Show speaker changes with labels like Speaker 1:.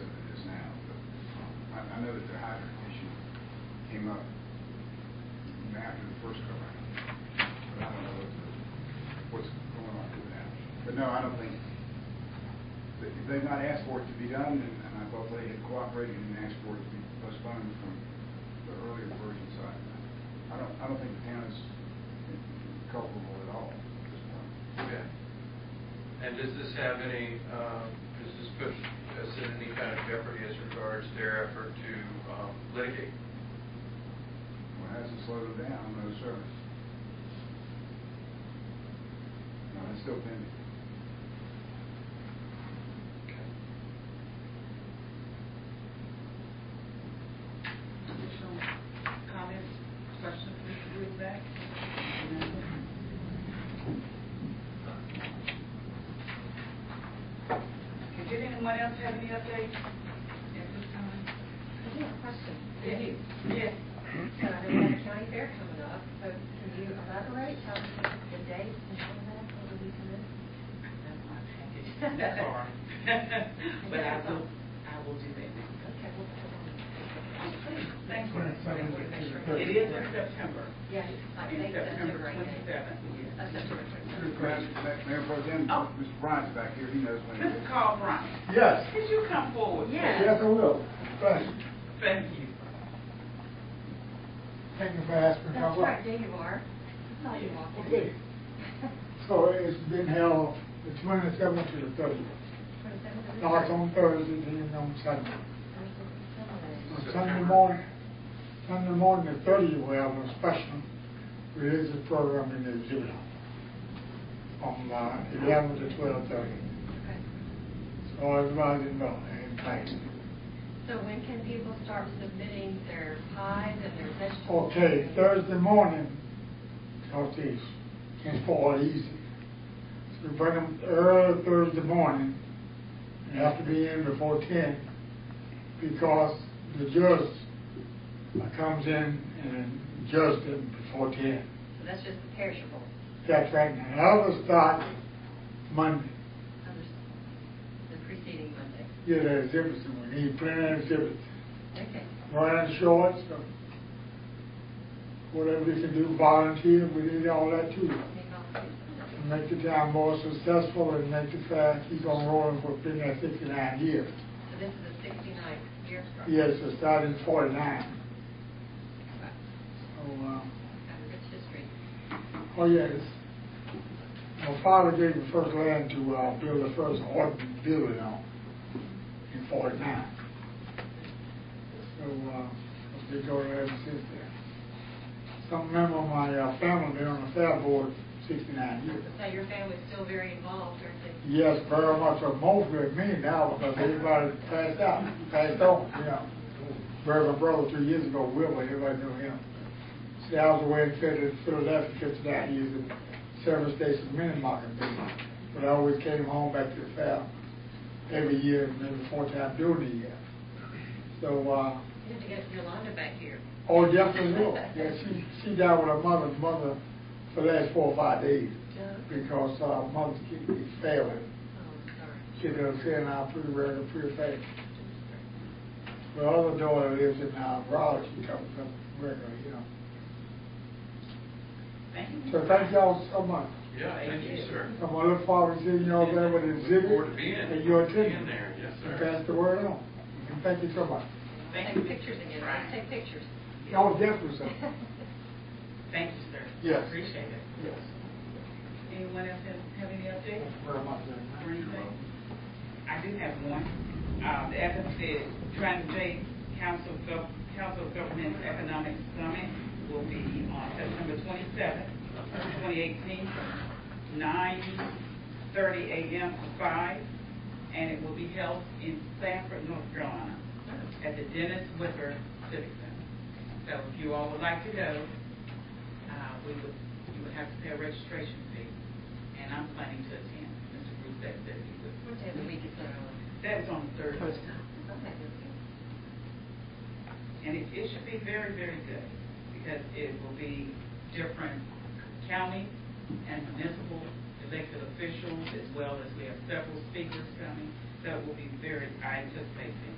Speaker 1: um, came up after the first go round. But I don't know what the- what's going on with that. But no, I don't think, they- they've not asked for it to be done, and and I thought they had cooperated and asked for it to be postponed from the earlier version, so I, I don't, I don't think the town is culpable at all at this point.
Speaker 2: Okay. And does this have any, um, does this put us in any kind of jeopardy as regards their effort to um, litigate?
Speaker 1: Well, it hasn't slowed it down, no sir. No, it's still pending.
Speaker 3: Additional comments, questions, Mr. Ruback? Okay, Did anyone else have any updates at this time?
Speaker 4: I have a question.
Speaker 3: Yes. Yes.
Speaker 4: So there's a county fair coming up, so can you elaborate on the dates and all of that, or will you come in?
Speaker 3: That's my package. That's hard. But I will, I will do that next time.
Speaker 4: Okay, we'll put it on.
Speaker 3: Thank you. It is in September.
Speaker 4: Yes, I think that's a great day. That's a
Speaker 3: Twenty-seventh.
Speaker 4: terrific
Speaker 1: Mr. President, Mayor Pro Tem,
Speaker 3: Oh.
Speaker 1: Mr. Bryant's back here, he knows when it
Speaker 3: Mr.
Speaker 1: is.
Speaker 3: Carl Bryant,
Speaker 5: Yes.
Speaker 3: could you come forward?
Speaker 4: Yes.
Speaker 5: I will. Right.
Speaker 3: Thank you.
Speaker 5: Thank you for asking.
Speaker 4: That's right, there you are. I saw you
Speaker 5: Okay.
Speaker 4: walking.
Speaker 5: So it's been held the twenty-seventh to the thirtieth.
Speaker 4: Twenty-seventh of
Speaker 5: Starts
Speaker 4: December.
Speaker 5: on Thursday, then on
Speaker 4: Thursday.
Speaker 5: Sunday. On Sunday
Speaker 2: September.
Speaker 5: morning, Sunday morning the thirtieth, we have a special religious program in the zoo. From uh, eleven to twelve thirty.
Speaker 4: Okay.
Speaker 5: So everybody know, and thank you.
Speaker 4: So when can people start submitting their pies and their vegetables?
Speaker 5: Okay, Thursday morning, because these can fall easy. So we bring them early Thursday morning, and have to be in before ten, because the judge comes in and judges them before ten.
Speaker 4: So that's just the perishables.
Speaker 5: That's right, and others start Monday.
Speaker 4: Others- The preceding Monday.
Speaker 5: Yeah, there's exhibits, and we need plenty of exhibits.
Speaker 4: Okay.
Speaker 5: running shorts, or whatever we can do, volunteer, we need all that too. To make the town more successful and make the fair keep on rolling for been there fifty-nine years.
Speaker 4: So this is the 69th year. strike.
Speaker 5: Yes, it started in forty-nine.
Speaker 4: Wow.
Speaker 5: So, uh,
Speaker 4: Got a rich history.
Speaker 5: oh yes. My father gave the first land to, uh, build the first ordinance building on in forty-nine. So, uh, I've been going ever since then. Some member of my uh, family been on the fair board sixty-nine years.
Speaker 4: So your family's still very involved, aren't they?
Speaker 5: Yes, very much, or mostly of me now, because everybody passed out, passed on, you know. Buried my brother three years ago, Wilbur, everybody knew him. See, I was away in Phil- Philadelphia fifty-nine years in service station mini-market business, but I always came home back to the fair every year, and maybe four times during the year. So, uh,
Speaker 4: You have to get Yolanda back here.
Speaker 5: Oh, definitely will. Yeah, she, she died with her mother, mother for the last four or five days
Speaker 4: Yeah.
Speaker 5: because uh, mother's kidney failing.
Speaker 4: Oh, sorry.
Speaker 5: She doesn't say now pretty regular, pretty fast. The other daughter lives in uh, Raleigh. She comes up regular, you know.
Speaker 3: Thank you.
Speaker 5: So thank y'all so much.
Speaker 2: Yeah, thank you, sir.
Speaker 5: I'm gonna look forward to seeing y'all there with the
Speaker 2: Look forward to
Speaker 5: exhibit
Speaker 2: being-
Speaker 5: and your
Speaker 2: being
Speaker 5: attendance.
Speaker 2: there. Yes,
Speaker 5: And
Speaker 2: sir.
Speaker 5: pass the word on. And thank you so much.
Speaker 3: Thank you.
Speaker 4: Take pictures again, let's take pictures.
Speaker 5: Y'all definitely so.
Speaker 3: Thank you, sir.
Speaker 5: Yes.
Speaker 3: Appreciate it.
Speaker 5: Yes.
Speaker 3: Anyone else have, have any
Speaker 5: Thank
Speaker 3: updates?
Speaker 5: you very much. Lynn.
Speaker 3: or anything? I do have one. Uh, the applicant said, Trent J. Council of Gov- Council of Governments Economic Summit will be on September twenty-seventh, twenty eighteen, nine thirty AM to five, and it will be held in Sanford, North Carolina, at the Dennis Whipper Civic Center. So if you all would like to go, uh, we would, you would have to pay a registration fee, and I'm planning to attend. Mr. Bruce said that he would.
Speaker 4: What day of the week is that on?
Speaker 3: That is on Thursday,
Speaker 4: Okay, good.
Speaker 3: and it, it should be very, very good, because it will be different county and municipal elected officials, as well as we have several speakers coming, that will be very, I anticipate being